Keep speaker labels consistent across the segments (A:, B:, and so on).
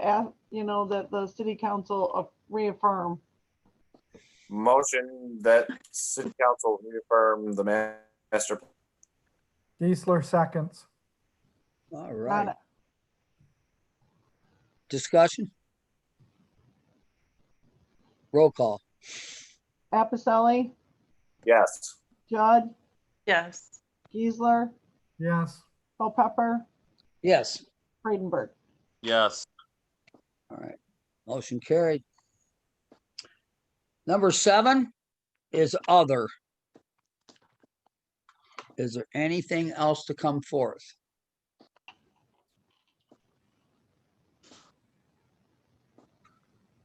A: ask, you know, that the city council uh, reaffirm.
B: Motion that city council reaffirm the ma- master.
C: Geisler seconds.
D: All
A: Got
D: right,
A: it.
D: discussion? Roll call.
A: Appicelli,
B: Yes.
A: Judd,
E: Yes.
A: Geisler,
C: Yes,
A: Culpepper,
D: Yes,
A: Freidenberg.
B: Yes.
D: all right. Motion carried. Number seven is other. Is there anything else to come forth?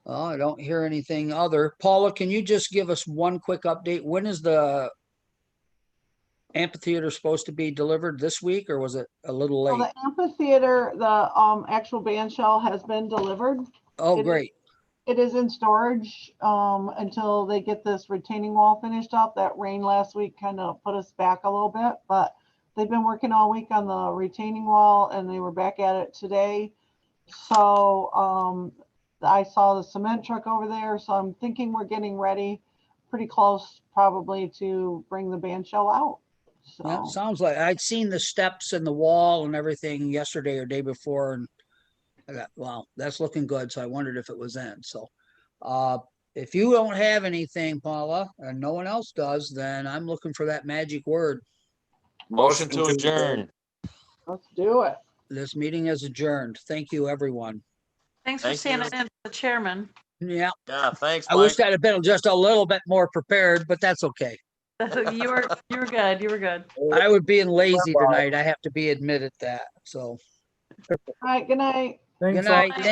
D: Oh, I don't hear anything other. Paula, can you just give us one quick update? When is the amphitheater supposed to be delivered this week or was it a little
A: Well,
D: late?
A: the amphitheater, the um, actual band shell has been delivered. it
D: Oh,
A: is-
D: great.
A: It is in storage um, until they get this retaining wall finished up. That rain last week kind of put us back a little bit, but they've been working all week on the retaining wall and they were back at it today. So um, I saw the cement truck over there, so I'm thinking we're getting ready pretty close probably to bring the band shell out.
D: Yeah,
A: So,
D: sounds like, I'd seen the steps and the wall and everything yesterday or day before and I got, wow, that's looking good. So I wondered if it was in, so. Uh, if you don't have anything, Paula, and no one else does, then I'm looking for that magic word.
B: Motion to adjourn.
A: let's do it.
D: This meeting is adjourned. Thank you, everyone.
E: Thanks for
F: Thank
E: standing
F: you.
E: in, for the chairman.
D: Yeah,
F: Yeah, thanks,
D: I wish
F: Mike.
D: I'd have been just a little bit more prepared, but that's okay.
E: You were, you were good. You were good.
D: I was being lazy tonight. I have to be admitted that, so.
A: All right, good night.
C: thanks.
D: Good
C: all.
D: night.